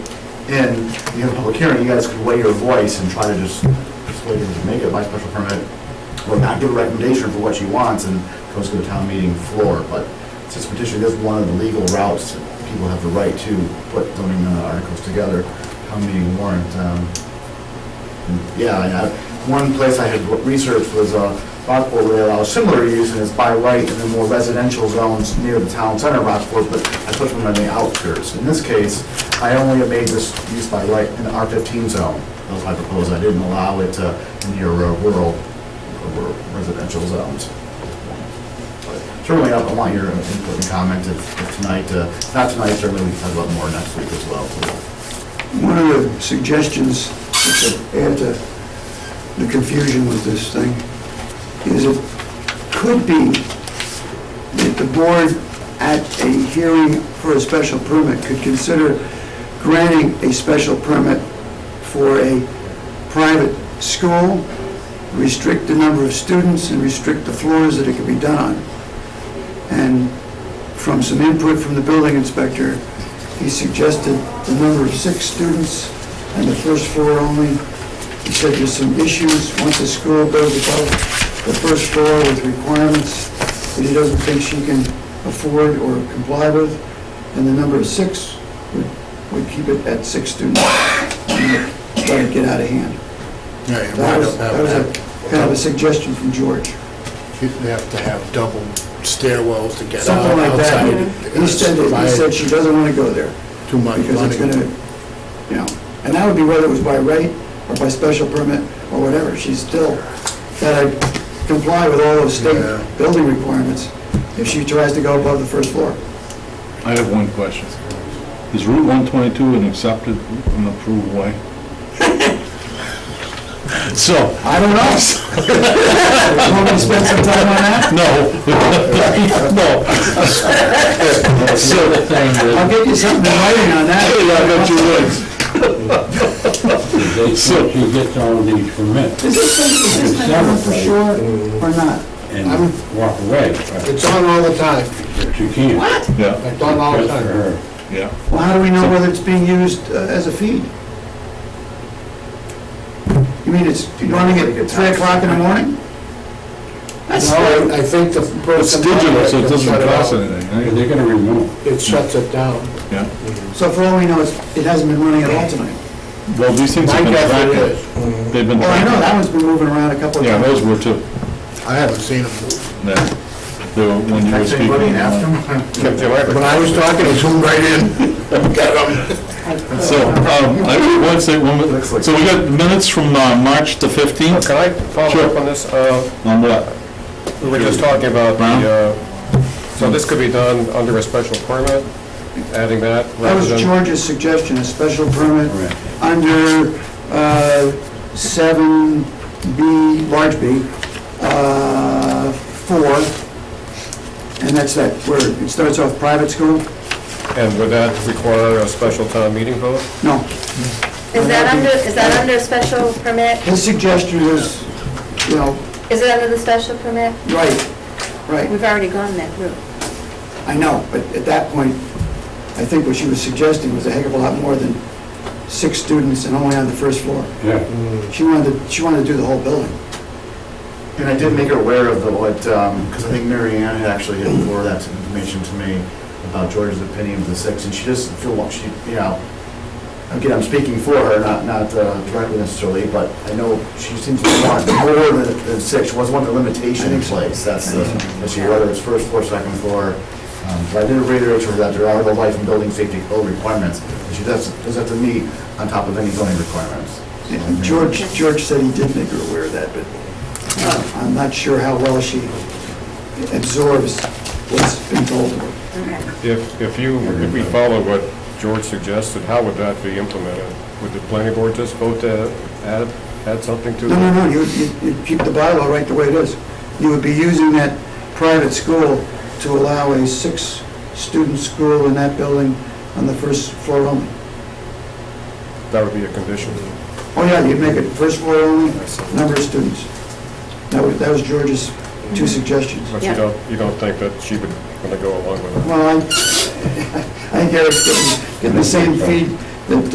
and you have a public hearing, you guys could weigh your voice and try to just persuade him to make it by special permit, or not give a recommendation for what she wants, and goes to the town meeting floor, but since petition is one of the legal routes, that people have the right to put zoning uh, articles together, town meeting warrant, um, yeah, I have- one place I had researched was uh, Rockport, where they allow similar use, and it's by right in the more residential zones near the town center of Rockport, but I put them in the outskirts. In this case, I only made this use by right in the R-15 zone. That's what I proposed, I didn't allow it uh, in your uh, rural, rural residential zones. But Certainly, I want your input and comment if if tonight, uh, not tonight, certainly we can talk about more next week as well. One of the suggestions to add to the confusion with this thing is it could be that the board at a hearing for a special permit could consider granting a special permit for a private school, restrict the number of students and restrict the floors that it could be done on. And from some input from the building inspector, he suggested the number of six students and the first floor only. He said there's some issues once the school goes above the first floor with requirements that he doesn't think she can afford or comply with, and the number of six would, would keep it at six students. and Let it get out of hand. Yeah, you That might was, that was have a, to kind of a suggestion from George. have, you'd have to have double stairwells to get out Something like that. outside. He said, that- he said she doesn't want to go there. Too much because it's gonna, money. you know, and that would be whether it was by right or by special permit or whatever, she's still gotta comply with all those state Yeah. building requirements if she tries to go above the first floor. I have one question. Is Route 122 an accepted and approved way? So, I don't know. You want me to spend some time on that? no, no. So, I'll get you something in writing on that. Hey, I bet you would. They think she gets all these permits Is this thing, is this thing done for sure Mm-hmm. or not? and walk away, but It's on all the time. she can't. What? Yeah, It's on all the time. yeah. Well, how do we know whether it's being used uh, as a feed? You mean it's running at three o'clock in the morning? No, I I think the It's person. digital, so it can shut it doesn't cost off. anything, right? They're gonna remove. It shuts it down. Yeah. So for all we know, it's- it hasn't been running at all tonight. Well, these things My have been guess it tracked. is. They've been Well, Oh, I know, tracked. that one's been moving around a couple of Yeah, times. those were too. I haven't seen them move. Yeah. They were, when you were Actually, speaking. what do you ask uh, them? When I was talking, it zoomed right in. So, um, I would want to say, one minute- Looks like- so we got minutes from uh, March the 15th? Can I follow Sure. up on this? Uh, On what? We were just talking about Brown? the, uh, so this could be done under a special permit, adding that That rather was than... George's suggestion, a special permit Right. under uh, 7B, large B, uh, 4, and that's that word. It starts off private school? And would that require a special town meeting vote? No. Is that under, is that under special permit? His suggestion was, you know, Is it under the special permit? right, right, We've already gone that route. I know, but at that point, I think what she was suggesting was a heck of a lot more than six students and only on the first floor. Yeah, She wanted, to- she wanted to do the whole building. And I did make her aware of the, what, because I think Mary Ann had actually had forwarded that information to me about George's opinion of the six, and she doesn't feel, what she, you know, again, I'm speaking for her, not, not uh, directly necessarily, but I know she seems to want more than, than six, she wants one of the limitation in place, that's the, issue, whether it's first floor, second floor. Um, But I did reiterate to her that there are the life and building safety code requirements, and she does, does have to meet on top of any zoning requirements. And George, George said he did make her aware of that, but uh, I'm not sure how well she absorbs what's been told to her. If, if you, if we follow what George suggested, how would that be implemented? Would the planning board just vote to add, add something to No, no, it? no, you, you- you'd keep the bylaw right the way it is. You would be using that private school to allow a six-student school in that building on the first floor only. That would be a condition. Oh, yeah, you'd make it first floor only, number of students. That was, that was George's two suggestions. But you Yeah. don't, you don't think that she would want to go along with it? Well, I, I think Eric's getting, getting the same feed that